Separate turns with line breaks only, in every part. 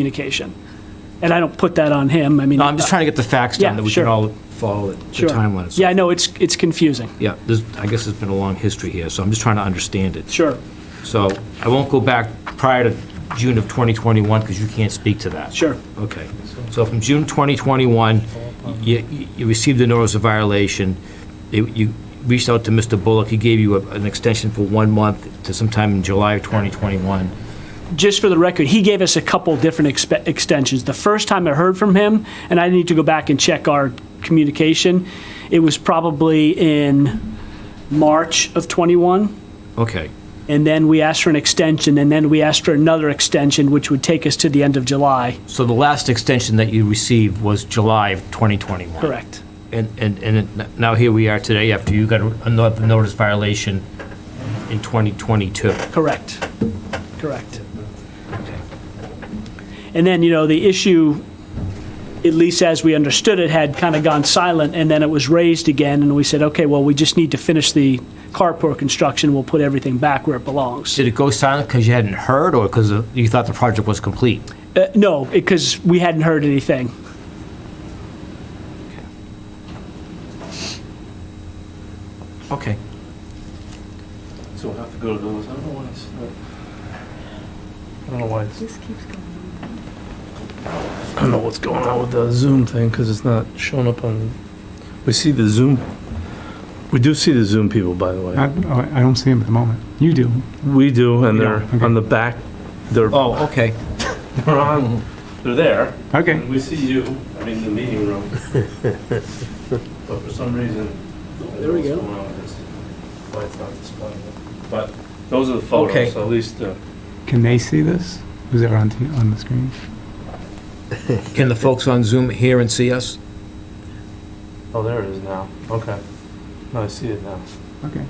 communication. And I don't put that on him, I mean.
No, I'm just trying to get the facts down
Yeah,
that we
sure.
can all follow it- the
Sure.
timeline.
Yeah, I know, it's, it's confusing,
Yeah, there's, I guess there's been a long history here, so I'm just trying to understand it.
sure,
So I won't go back prior to June of 2021, because you can't speak to that.
sure,
Okay. So from June 2021, you, you received a notice of violation. You- You reached out to Mr. Bullock. He gave you a- an extension for one month to sometime in July of 2021.
just for the record, he gave us a couple different expe- extensions. The first time I heard from him, and I need to go back and check our communication, it was probably in March of '21.
Okay.
And then we asked for an extension, and then we asked for another extension, which would take us to the end of July.
So the last extension that you received was July of 2021.
Correct.
And, and, and it- now here we are today after you got another notice violation in 2022.
Correct. Correct. And then, you know, the issue, at least as we understood it, had kind of gone silent, and then it was raised again, and we said, okay, well, we just need to finish the carport construction, we'll put everything back where it belongs.
Did it go silent because you hadn't heard or because you thought the project was complete?
Uh, No, because we hadn't heard anything.
Okay.
So we'll have to go to those, I don't know why it's not. I don't know why it's,
This keeps going.
I don't know what's going on with the Zoom thing, because it's not showing up on, we see the Zoom, we do see the Zoom people, by the
I,
way.
oh, I don't see him at the moment. You do.
We do, and
You
they're
don't, okay.
on the back, they're,
Oh, okay.
they're on, they're there,
Okay.
and we see you, I mean, the meeting room. But for some reason, I don't know
There we
what's
go.
going on with this. Why it's not displaying it. But those are the photos,
Okay.
so at least, uh,
Can they see this? Who's ever on, t- on the screen?
Can the folks on Zoom hear and see us?
oh, there it is now, okay. No, I see it now.
Okay.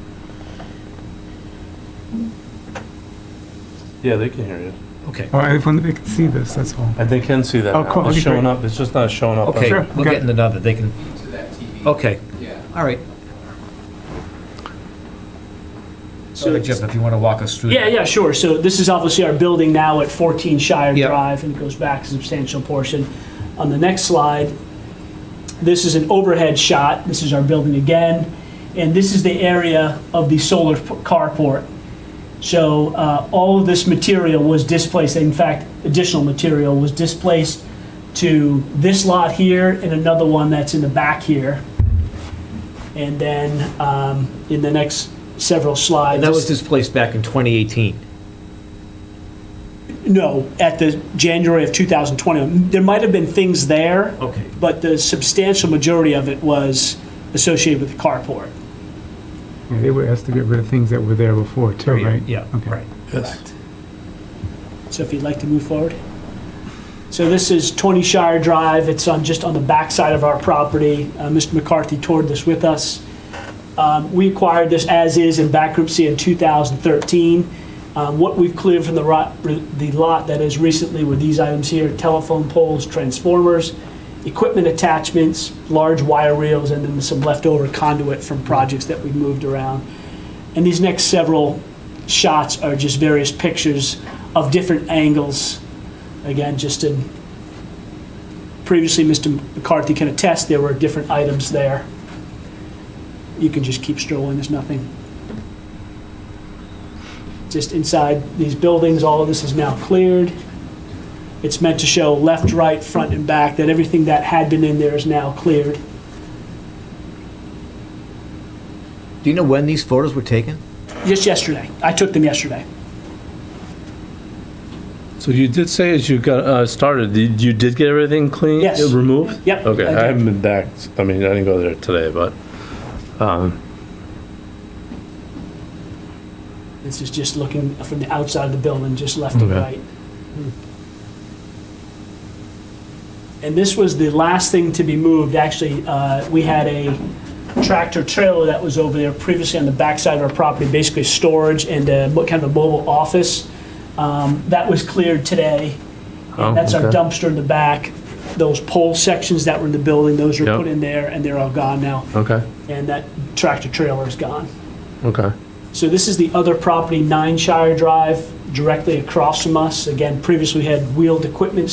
Yeah, they can hear you.
Okay.
Oh, I just wonder if they can see this, that's all.
Uh,
And they can see that
Oh, cool.
now. It's
Okay,
showing
great.
up, it's just not showing up.
Oh, Okay,
Sure,
we're
okay.
getting another. They can. Okay. Yeah. All right. So, Jeff, if you want to walk us through.
Yeah, yeah, sure. So this is obviously our building now at 14 Shire
Yep.
Drive, and it goes back a substantial portion. On the next slide, this is an overhead shot. This is our building again, and this is the area of the solar p- carport. So uh, all of this material was displaced, in fact, additional material was displaced to this lot here and another one that's in the back here. And then um, in the next several slides.
And that
this-
was displaced back in 2018.
No, at the January of 2020. There might have been things there,
Okay.
but the substantial majority of it was associated with the carport.
Yeah, they were asked to get rid of things that were there before, too, right?
oh, Yeah,
Okay.
right.
So if you'd like to move forward. So this is 20 Shire Drive. It's on, just on the backside of our property. Uh, Mr. McCarthy toured this with us. Um, We acquired this as-is in bankruptcy in 2013. Um, What we've cleared from the ro- the lot that is recently were these items here, telephone poles, transformers, equipment attachments, large wire reels, and then some leftover conduit from projects that we moved around. And these next several shots are just various pictures of different angles. Again, just in, previously, Mr. McCarthy can attest, there were different items there. You can just keep strolling, there's nothing. Just inside these buildings, all of this is now cleared. It's meant to show left, right, front, and back, that everything that had been in there is now cleared.
Do you know when these photos were taken?
Just yesterday, I took them yesterday.
So you did say as you got uh, started, you you did get everything clean? uh,
Yes.
Removed?
Yep,
Okay,
I did.
I haven't been back, I mean, I didn't go there today, but, um,
This is just looking from the outside of the building, just left and
Okay.
right. Hmm. And this was the last thing to be moved. Actually, uh, we had a tractor trailer that was over there previously on the backside of our property, basically storage and uh, mo- kind of a mobile office. Um, That was cleared today.
Oh,
And that's our
okay.
dumpster in the back. Those pole sections that were in the building, those were
Yep.
put in there and they're all gone now.
okay,
And that tractor trailer is gone.
okay.
So this is the other property, Nine Shire Drive, directly across from us. Again, previously we had wheeled equipment